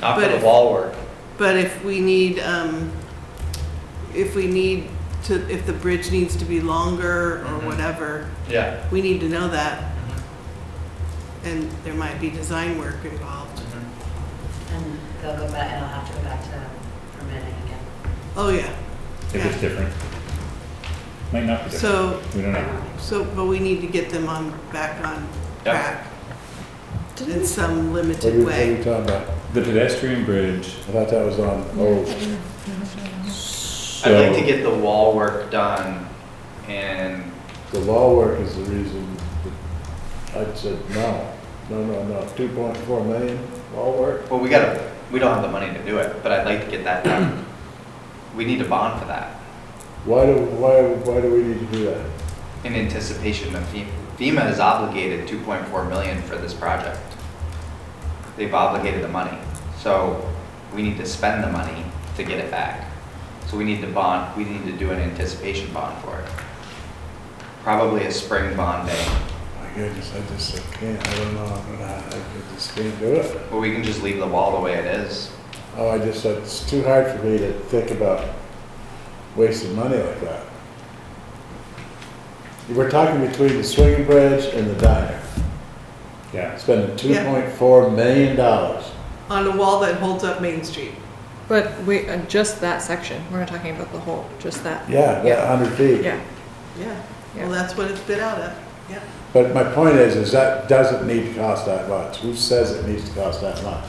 not for But the if- wall work. But if we need, um, if we need to, if the bridge needs to be longer or Mhm. whatever, Yeah. we need to know that, Mhm. and there might be design work involved. Mhm. And they'll go back, and I'll have to go back to permitting again. Oh, yeah. if it's Yeah. different. Might not be different, So, we don't know. so, but we need to get them on, back on Yeah. track in some What are you, limited what are you way. talking about? The pedestrian bridge, I thought that was on, oh, I'd like to so, get the wall work done and, the law work is the reason that I said no. No, no, no, two point four million law work? well, we gotta, we don't have the money to do it, but I'd like to get that done. We need a bond for that Why do, why, why do we need to do that? in anticipation of E FEMA. FEMA is obligated two point four million for this project. They've obligated the money, so we need to spend the money to get it back. So we need to bond, we need to do an anticipation bond for it. Probably a spring bond day, My goodness, I just, I can't, I don't know, I I just can't do it. or we can just leave the wall the way it is. Oh, I just said, it's too hard for me to think about wasting money like that. We're talking between the swinging bridge and the diner, yeah. spending two Yeah. point four million dollars. On a wall that holds up Main Street. But we, uh, just that section, we're not talking about the whole, just that, Yeah, Yeah. a hundred feet. yeah. Yeah. Yeah. Well, that's what it's bid out at. Yeah. But my point is, is that doesn't need to cost that much. Who says it needs to cost that much?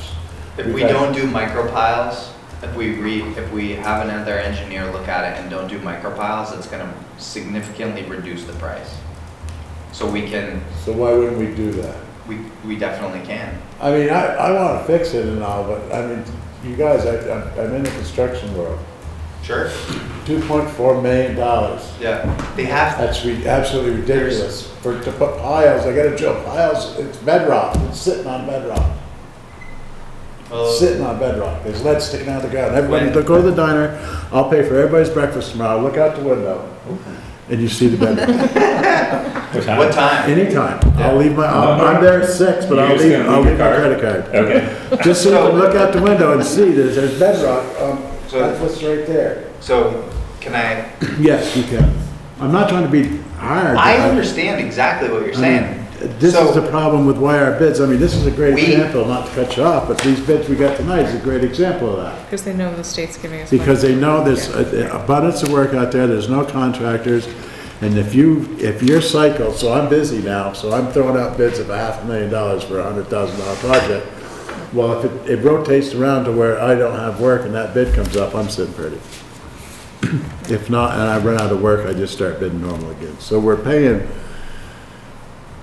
If we Because- don't do micro piles, if we re, if we have another engineer look at it and don't do micro piles, it's gonna significantly reduce the price. So we can, So why wouldn't we do that? we, we definitely can. I mean, I, I wanna fix it and all, but I mean, you guys, I, I'm- I'm in the construction world. Sure. Two point four million dollars. Yeah, they have, That's re- absolutely ridiculous. For, to put piles, I gotta drill piles, it's bedrock, it's sitting on bedrock, well, sitting on bedrock. There's lead sticking out of the ground. Everybody, When- go to the diner, I'll pay for everybody's breakfast tomorrow, look out the window, and you see the bedrock. What time? what time? Anytime. I'll leave my, I'll- No, no. I'm there at six, but You're I'll just leave, gonna I'll leave leave your my card? credit card. Okay, Just so you can look out the window and see that there's bedrock, um, So- that's what's right there. So, can I, Yes, you can. I'm not trying to be hard. I but understand exactly what you're I mean, saying. This is So- the problem with why our bids, I mean, this is a great We- example, not to cut you off, but these bids we got tonight is a great example of that. Because they know the state's giving us. money. Because they know there's a- a abundance of work out there, there's no contractors, and if you, if you're cycled, so I'm busy now, so I'm throwing out bids of a half a million dollars for a hundred thousand dollar project. Well, if it, it rotates around to where I don't have work and that bid comes up, I'm sitting pretty. If not, and I run out of work, I just start bidding normal again. So we're paying,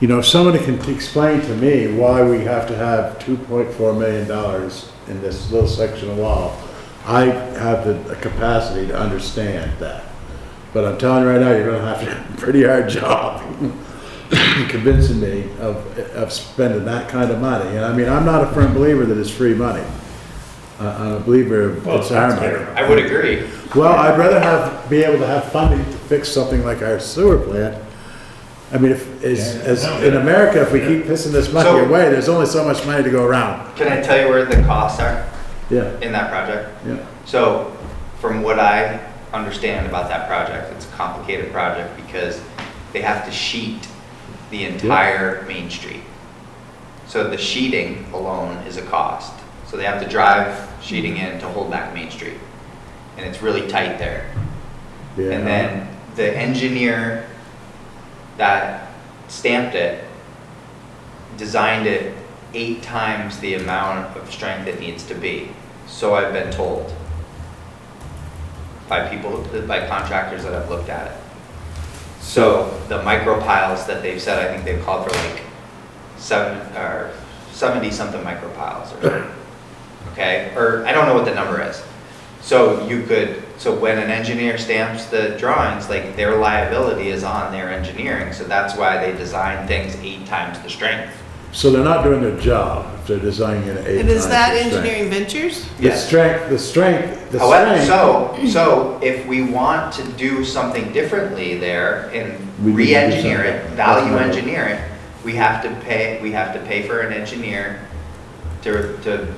you know, if somebody can t- explain to me why we have to have two point four million dollars in this little section of wall, I have the capacity to understand that. But I'm telling you right now, you're gonna have to have a pretty hard job convincing me of, of spending that kind of money. And I mean, I'm not a firm believer that it's free money. I- I'm a believer of Well, it's our it's fair. money. I would agree. Well, I'd rather have, be able to have funding to fix something like our sewer plant. I mean, if, as, Yeah, as, no, in yeah. America, if we keep pissing this money So- away, there's only so much money to go around. Can I tell you where the costs are Yeah, in that project? yeah. So, from what I understand about that project, it's a complicated project because they have to sheet the entire Main Street. So the sheeting alone is a cost. So they have to drive sheeting in to hold back Main Street. And it's really tight there. yeah. And then the engineer that stamped it designed it eight times the amount of strength it needs to be. So I've been told by people, by contractors that have looked at it. So the micro piles that they've said, I think they've called for like seven, or seventy-something micro piles or, okay? Or I don't know what the number is. So you could, so when an engineer stamps the drawings, like their liability is on their engineering, so that's why they design things eight times the strength. So they're not doing their job, if they're designing it at eight And is times that the strength. engineering ventures? The Yes. strength, the strength, the However, strength. Oh, so, so if we want to do something differently there and We need to do re-engineer it, something. value Definitely. engineer it, we have to pay, we have to pay for an engineer to, to